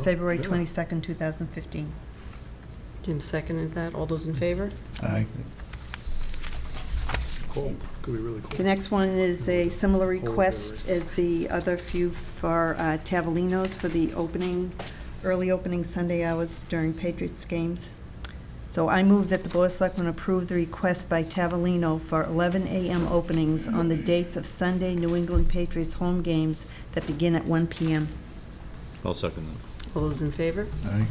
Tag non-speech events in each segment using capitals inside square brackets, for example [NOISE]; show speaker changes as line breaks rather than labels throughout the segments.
February 22nd, 2015.
Jim seconded that. All those in favor?
Aye.
Cold, could be really
The
cold.
next one is a similar request as the other few for uh, Tavolino's for the opening, early opening Sunday hours during Patriots games. So I move that the Board of Selectmen approve the request by Tavolino for 11 a.m. openings on the dates of Sunday New England Patriots home games that begin at 1 p.m.
I'll second that.
All those in favor?
Aye.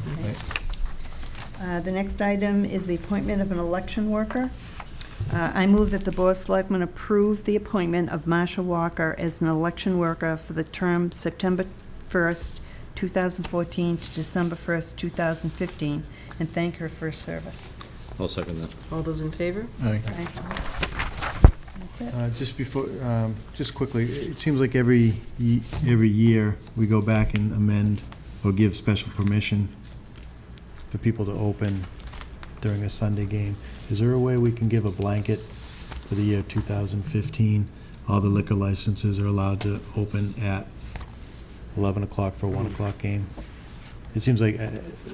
Uh, The next item is the appointment of an election worker. Uh, I move that the Board of Selectmen approve the appointment of Marsha Walker as an election worker for the term September 1st, 2014 to December 1st, 2015, and thank her for her service.
I'll second that.
All those in favor?
Aye.
That's it.
Uh, Just before, um, just quickly, it seems like every, ye- every year, we go back and amend or give special permission for people to open during a Sunday game. Is there a way we can give a blanket for the year 2015? All the liquor licenses are allowed to open at 11 o'clock for a 1 o'clock game? It seems like uh,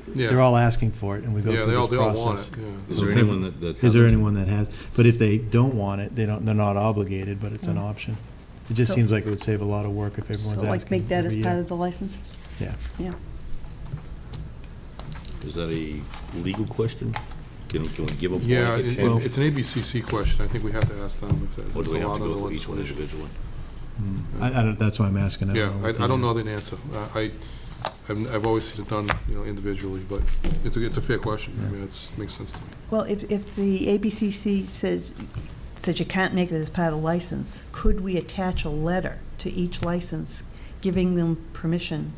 they're all asking for it, and we go
Yeah,
through
they all,
this
they all want
process.
it, yeah.
Is there
Okay.
anyone that, that
Is there
hasn't?
anyone that has, but if they don't want it, they don't, they're not obligated, but it's an
Mm.
option. It just
So-
seems like it would save a lot of work if everyone's
So like
asking
make that as
every
part
year.
of the license?
Yeah.
Yeah.
Is that a legal question? Can, can we give a
Yeah, it-
blanket
it-
change?
it's an ABCC question, I think we have to ask them if
Or
there's
do
a
we have
lot
to
of the
go through each one
legislation.
individually?
Mm. I, I don't, that's why I'm asking.
Yeah, I,
what
I don't know
the-
the answer. Uh, I, I've I've always seen it done, you know, individually, but it's a, it's a fair question. I
Yeah.
mean, it's, makes sense to me.
Well, if, if the ABCC says, says you can't make it as part of the license, could we attach a letter to each license giving them permission?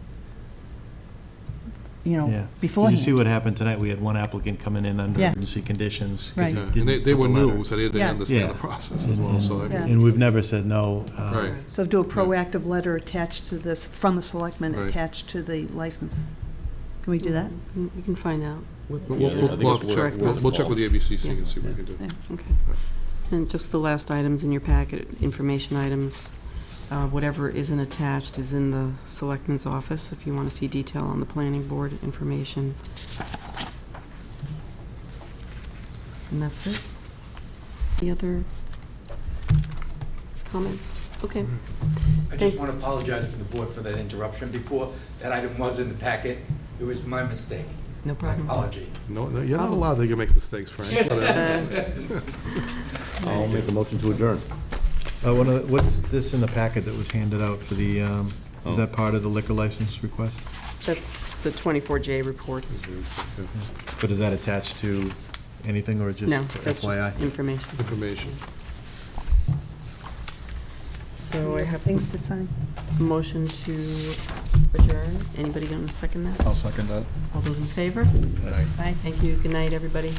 You
Yeah.
know,
Did you see
beforehand?
what happened tonight? We had one applicant coming in under
Yeah.
emergency conditions. 'cause
Right.
he
Yeah,
didn't
And they, they
put
were
the letter.
new, so they didn't
Yeah.
understand the
Yeah.
process as well,
And-
so. I
Yeah.
mean,
And we've never said no. uh,
Right.
So do a proactive letter attached to this, from the selectmen,
Right.
attached to the license. Can we do that?
Mm, We can find out. what-
We'll,
Yeah, I
we'll-
think
we'll have
it's
to check,
worth-
we'll
worth
we'll check with the ABCC and
Yeah.
see what we can do.
Yeah.
Okay. And just the last items in your packet, information items, uh, whatever isn't attached is in the selectman's office if you want to see detail on the planning board information. And that's it. Any other comments? Okay.
I
Thank-
just want to apologize to the board for that interruption before. That item was in the packet. It was my mistake.
No
My
problem.
apology.
No, no, you're not
Problem.
allowed, they can make mistakes,
[LAUGHS]
Frank.
I'll make a motion to adjourn.
Uh, one of, the- what's this in the packet that was handed out for the, um,
Oh.
is that part of the liquor license request?
That's the 24J reports.
But is that attached to anything or just
No, that's
FYI?
just information.
Information.
So I have
Things to sign?
a motion to adjourn. Anybody going to second that?
I'll second that.
All those in favor?
Aye.
Thank you. Good night, everybody.